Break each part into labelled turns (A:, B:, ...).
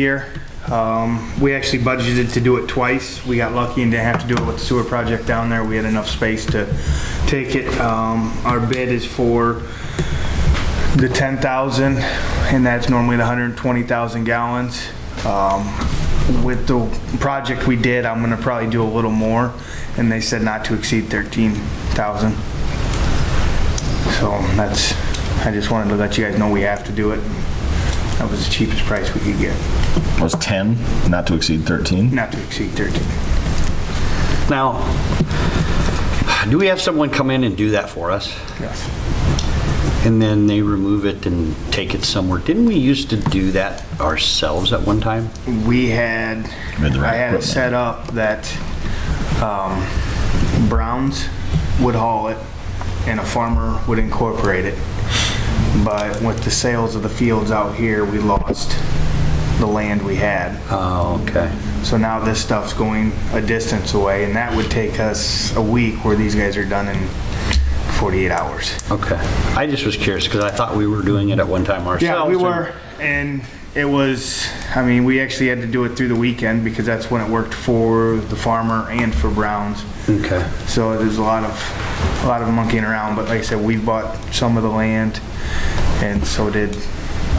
A: year. Um, We actually budgeted to do it twice. We got lucky and didn't have to do it with the sewer project down there. We had enough space to take it. Um, Our bid is for the 10,000, and that's normally the 120,000 gallons. Um, With the project we did, I'm gonna probably do a little more, and they said not to exceed 13,000. So that's, I just wanted to let you guys know we have to do it. That was the cheapest price we could get,
B: was 10, not to exceed 13.
A: not to exceed 13.
C: Now, do we have someone come in and do that for us?
A: Yes.
C: And then they remove it and take it somewhere? Didn't we used to do that ourselves at one time?
A: We had,
B: We had the right
A: I had it
B: equipment.
A: set up that um, Browns would haul it and a farmer would incorporate it. But with the sales of the fields out here, we lost the land we had.
C: Oh, okay.
A: So now this stuff's going a distance away, and that would take us a week where these guys are done in 48 hours.
C: Okay. I just was curious because I thought we were doing it at one time ourselves.
A: Yeah, we
C: and-
A: were, and it was, I mean, we actually had to do it through the weekend because that's when it worked for the farmer and for Browns.
C: Okay.
A: So there's a lot of, a lot of monkeying around, but like I said, we bought some of the land and so did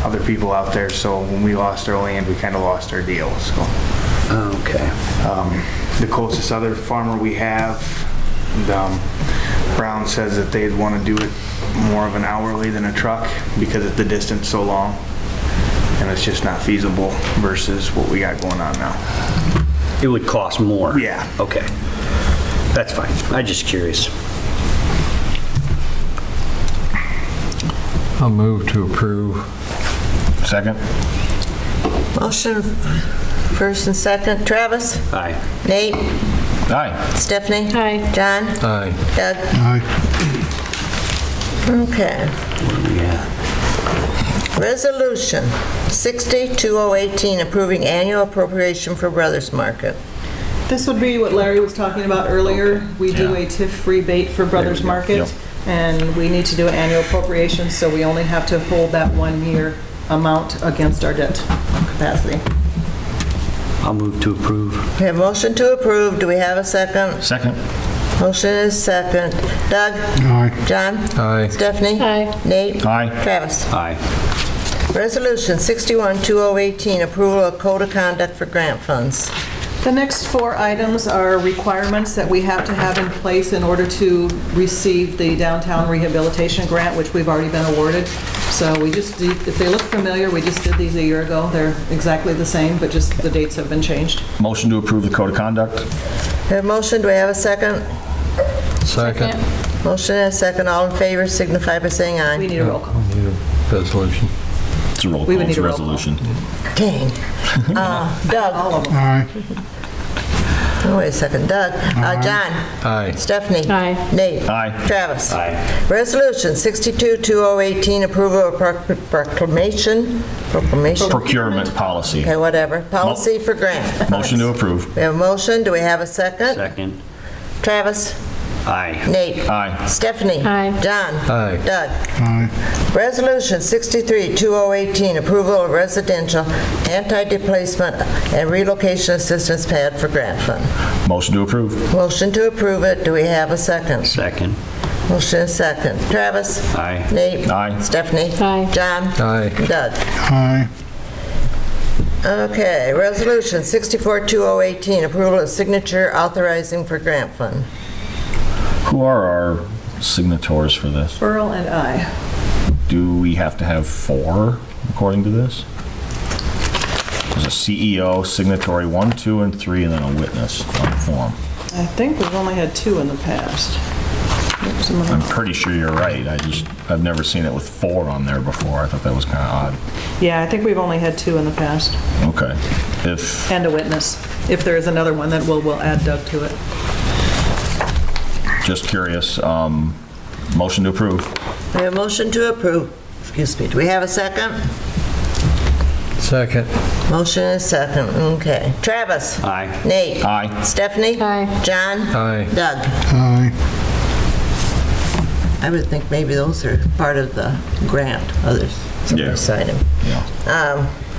A: other people out there. So when we lost our land, we kind of lost our deal, so.
C: Oh, Okay.
A: Um, The closest other farmer we have, um, Brown says that they'd want to do it more of an hourly than a truck because of the distance so long. And it's just not feasible versus what we got going on now.
C: It would cost more?
A: Yeah.
C: Okay. That's fine. I'm just curious.
D: I'll move to approve.
B: Second?
E: Motion, first and second. Travis?
C: Aye.
E: Nate?
B: Aye.
E: Stephanie?
F: Aye.
E: John?
D: Aye.
E: Doug? Okay.
C: Yeah.
E: Resolution 60-2018, approving annual appropriation for Brothers Market.
G: This would be what Larry was talking about earlier. We do a TIF rebate for Brothers
B: go.
G: Market, and we need to do an annual appropriation, so we only have to hold that one-year amount against our debt capacity.
C: I'll move to approve.
E: We have motion to approve. Do we have a second?
B: Second?
E: Motion is second. Doug? Aye. John?
D: Aye.
E: Stephanie?
F: Aye.
E: Nate?
B: Aye.
E: Travis?
C: Aye.
E: Resolution 61-2018, approval of code of conduct for grant funds.
G: The next four items are requirements that we have to have in place in order to receive the downtown rehabilitation grant, which we've already been awarded. So we just, did- if they look familiar, we just did these a year ago. They're exactly the same, but just the dates have been changed.
B: Motion to approve the code of conduct?
E: We have motion. Do we have a second?
D: Second.
E: Motion and a second. All in favor signify by saying
G: We
E: aye.
G: need a roll call.
D: Resolution.
B: It's a roll
G: We
B: call,
G: would
B: it's
G: need
B: a
G: a roll call.
B: resolution.
E: Dang. Uh, Doug?
G: All of them.
E: Oh, Wait a second. Doug? Uh, John?
D: Aye.
E: Stephanie?
F: Aye.
E: Nate?
B: Aye.
E: Travis?
C: Aye.
E: Resolution 62-2018, approval of proc- proclamation, proclamation,
B: Procurement policy.
E: okay, whatever, policy for grant.
B: Motion to approve.
E: We have a motion. Do we have a second?
C: Second.
E: Travis?
C: Aye.
E: Nate?
B: Aye.
E: Stephanie?
F: Aye.
E: John?
D: Aye.
E: Doug? Resolution 63-2018, approval of residential anti-displacement and relocation assistance pad for grant fund.
B: Motion to approve.
E: Motion to approve it. Do we have a second?
C: Second.
E: Motion and second. Travis?
C: Aye.
E: Nate?
B: Aye.
E: Stephanie?
F: Aye.
E: John?
D: Aye.
E: Doug?
H: Aye.
E: Okay, Resolution 64-2018, approval of signature authorizing for grant fund.
B: Who are our signatories for this?
G: Earl and I.
B: Do we have to have four according to this? There's a CEO, signatory one, two, and three, and then a witness on the form.
G: I think we've only had two in the past. Oops, I'm
B: I'm
G: gonna-
B: pretty sure you're right. I just, I've never seen it with four on there before. I thought that was kind of
G: Yeah, I think we've only had two in the past,
B: odd. Okay. If
G: and a witness. If there is another one, then we'll, we'll add Doug to it.
B: Just curious, um, motion to approve.
E: We have a motion to approve. Excuse me. Do we have a second?
D: Second.
E: Motion and second. Okay. Travis?
C: Aye.
E: Nate?
B: Aye.
E: Stephanie?
F: Aye.
E: John?
D: Aye.
E: Doug?
H: Aye.
E: I would think maybe those are part of the grant, others, somebody
B: Yeah.
E: signed them.
B: Yeah.
E: Um,